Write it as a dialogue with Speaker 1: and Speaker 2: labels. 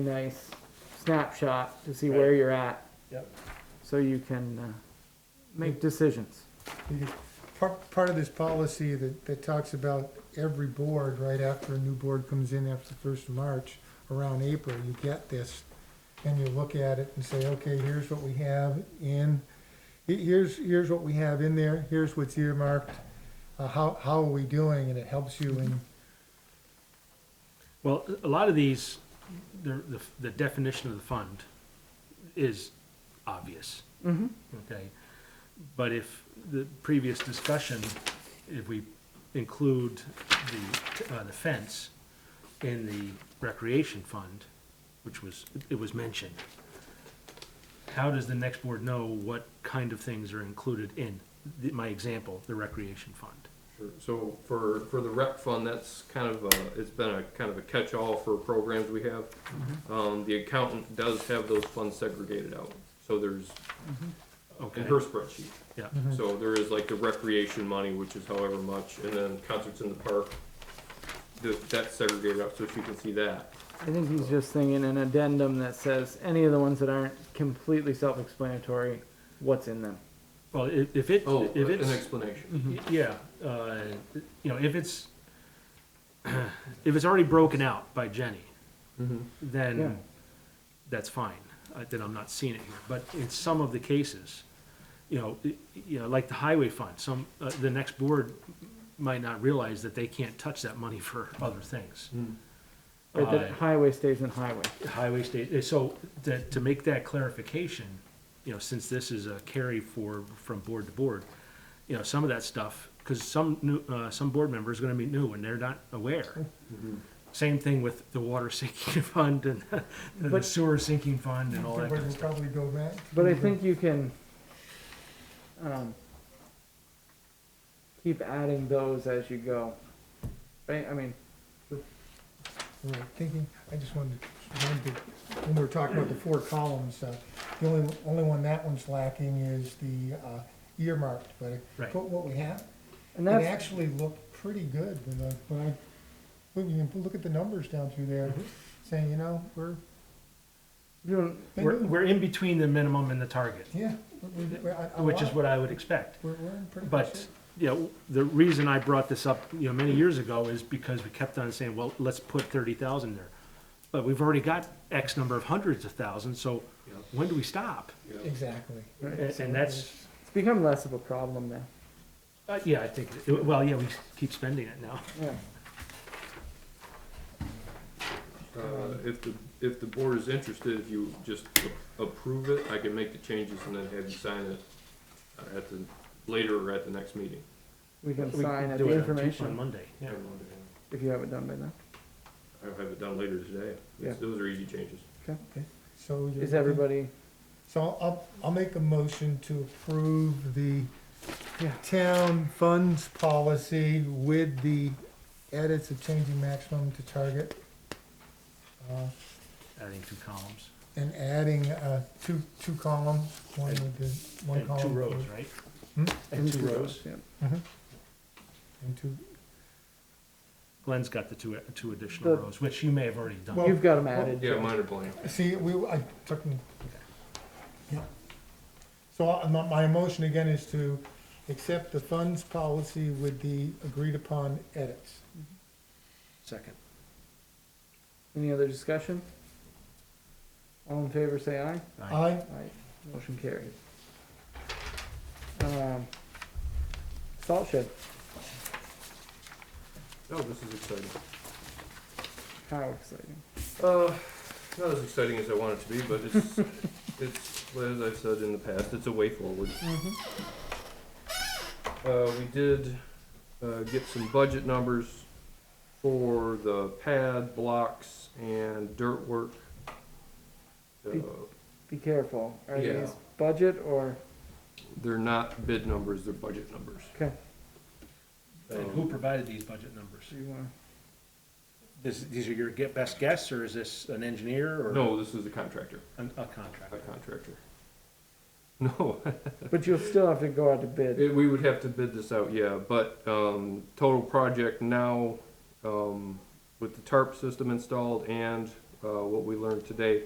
Speaker 1: nice snapshot to see where
Speaker 2: Right.
Speaker 1: you're at,
Speaker 2: Yep. Mm-hmm.
Speaker 1: so you can, uh, make decisions.
Speaker 3: Part, part of this policy that, that talks about every board, right after a new board comes in after the first of March, around April, you get this, and you look at it and say, okay, here's what we have in, he- here's, here's what we have in there, here's what's earmarked, uh, how, how are we doing, and it helps you in,
Speaker 2: Well, a lot of these, the, the- the definition of the fund is obvious,
Speaker 1: Mm-hmm.
Speaker 2: okay? But if the previous discussion, if we include the, uh, the fence in the recreation fund, which was, it was mentioned, how does the next board know what kind of things are included in, the- my example, the recreation fund?
Speaker 4: Sure. So for, for the rec fund, that's kind of a, it's been a kind of a catch-all for programs we have. Um, the accountant does have those funds segregated out, so there's,
Speaker 2: Okay,
Speaker 4: in her spreadsheet.
Speaker 2: yeah,
Speaker 4: So there is like the recreation money, which is however much, and then concerts in the park, th- that's segregated out, so she can see that.
Speaker 1: I think he's just thinking an addendum that says any of the ones that aren't completely self-explanatory, what's in them.
Speaker 2: well, i- if it,
Speaker 4: Oh,
Speaker 2: if
Speaker 4: an
Speaker 2: it's.
Speaker 4: explanation.
Speaker 2: Y- Yeah, uh, you know, if it's, if it's already broken out by Jenny,
Speaker 4: Mm-hmm.
Speaker 1: Yeah.
Speaker 2: then that's fine, uh, then I'm not seeing it here. But in some of the cases, you know, i- you know, like the highway fund, some, uh, the next board might not realize that they can't touch that money for other things.
Speaker 1: Right, that
Speaker 2: Uh,
Speaker 1: highway stays in highway.
Speaker 2: Highway state, uh, so to, to make that clarification, you know, since this is a carry for, from board to board, you know, some of that stuff, because some new, uh, some board member is gonna be new and they're not aware. Same thing with the water sinking fund and the
Speaker 1: But-
Speaker 2: sewer sinking fund and all that
Speaker 3: everybody
Speaker 2: kind of
Speaker 3: will
Speaker 2: stuff.
Speaker 3: probably go back.
Speaker 1: But
Speaker 2: Mm-hmm.
Speaker 1: I think you can, um, keep adding those as you go. Right, I mean,
Speaker 3: we were thinking, I just wanted to, wanted to- when we were talking about the four columns, uh, the only, only one that one's lacking is the uh, earmarked, but it-
Speaker 2: Right.
Speaker 3: but what we have,
Speaker 1: and
Speaker 3: it
Speaker 1: that's,
Speaker 3: actually looked pretty good when I, when I, when you can look at the numbers down through there,
Speaker 2: Mm-hmm.
Speaker 3: saying, you know, we're,
Speaker 1: you
Speaker 3: been
Speaker 2: We're,
Speaker 3: doing-
Speaker 2: we're in between the minimum and the target,
Speaker 3: yeah, we- we- we're, I- I
Speaker 2: which is
Speaker 3: like-
Speaker 2: what I would expect.
Speaker 3: We're, we're in pretty good
Speaker 2: But,
Speaker 3: shape.
Speaker 2: you know, the reason I brought this up, you know, many years ago is because we kept on saying, well, let's put thirty thousand there. But we've already got X number of hundreds of thousands, so
Speaker 4: Yeah.
Speaker 2: when do we stop?
Speaker 4: Yeah.
Speaker 3: Exactly.
Speaker 2: And and that's,
Speaker 1: it's become less of a problem now.
Speaker 2: uh, yeah, I think, well, yeah, we keep spending it now.
Speaker 1: Yeah.
Speaker 4: Uh, If the, if the board is interested, if you just approve it, I can make the changes and then have you sign it uh, at the, later or at the next meeting.
Speaker 1: We can
Speaker 2: We
Speaker 1: sign at
Speaker 2: do
Speaker 1: the
Speaker 2: it on- On
Speaker 1: information,
Speaker 2: Monday, yeah.
Speaker 1: if you haven't done by now.
Speaker 4: I'll have it done later today.
Speaker 1: Yeah.
Speaker 4: Those are easy changes.
Speaker 3: So you're.
Speaker 1: Is everybody?
Speaker 3: So I'll- I'll, I'll make a motion to approve the town funds policy with the edits of changing maximum to target. uh,
Speaker 2: Adding two columns
Speaker 3: And adding, uh, two, two columns, one with the, one
Speaker 2: and two
Speaker 3: column.
Speaker 2: rows, right?
Speaker 3: Hmm?
Speaker 2: And two rows.
Speaker 1: Yeah.
Speaker 3: Mhm. And two,
Speaker 2: Glenn's got the two, two additional
Speaker 1: The-
Speaker 2: rows, which you may have already done.
Speaker 3: Well-
Speaker 1: You've got them added.
Speaker 4: Yeah, mine are blank.
Speaker 3: see, we, I took, them- yeah. So I- my, my motion again is to accept the funds policy with the agreed upon edits.
Speaker 2: Second.
Speaker 1: Any other discussion? All in favor, say aye.
Speaker 2: Aye.
Speaker 3: I,
Speaker 1: Aye. Motion carried. Um, Salt shed,
Speaker 4: Oh, this is exciting.
Speaker 1: how exciting.
Speaker 4: Uh, not as exciting as I want it to be, but it's, it's, well, as I've said in the past, it's a way forward.
Speaker 1: Mm-hmm.
Speaker 4: Uh, we did, uh, get some budget numbers for the pad, blocks, and dirt work. Uh,
Speaker 1: Be careful. Are
Speaker 4: Yeah.
Speaker 1: these budget or,
Speaker 4: They're not bid numbers, they're budget numbers.
Speaker 1: okay,
Speaker 2: And who provided these budget numbers?
Speaker 1: do you wanna,
Speaker 2: This, these are your get best guess, or is this an engineer or?
Speaker 4: No, this is a contractor,
Speaker 2: A, a
Speaker 4: a
Speaker 2: contractor.
Speaker 4: contractor. No,
Speaker 1: but you'll still have to go out to bid.
Speaker 4: It, we would have to bid this out, yeah, but, um, total project now, um, with the tarp system installed and uh, what we learned today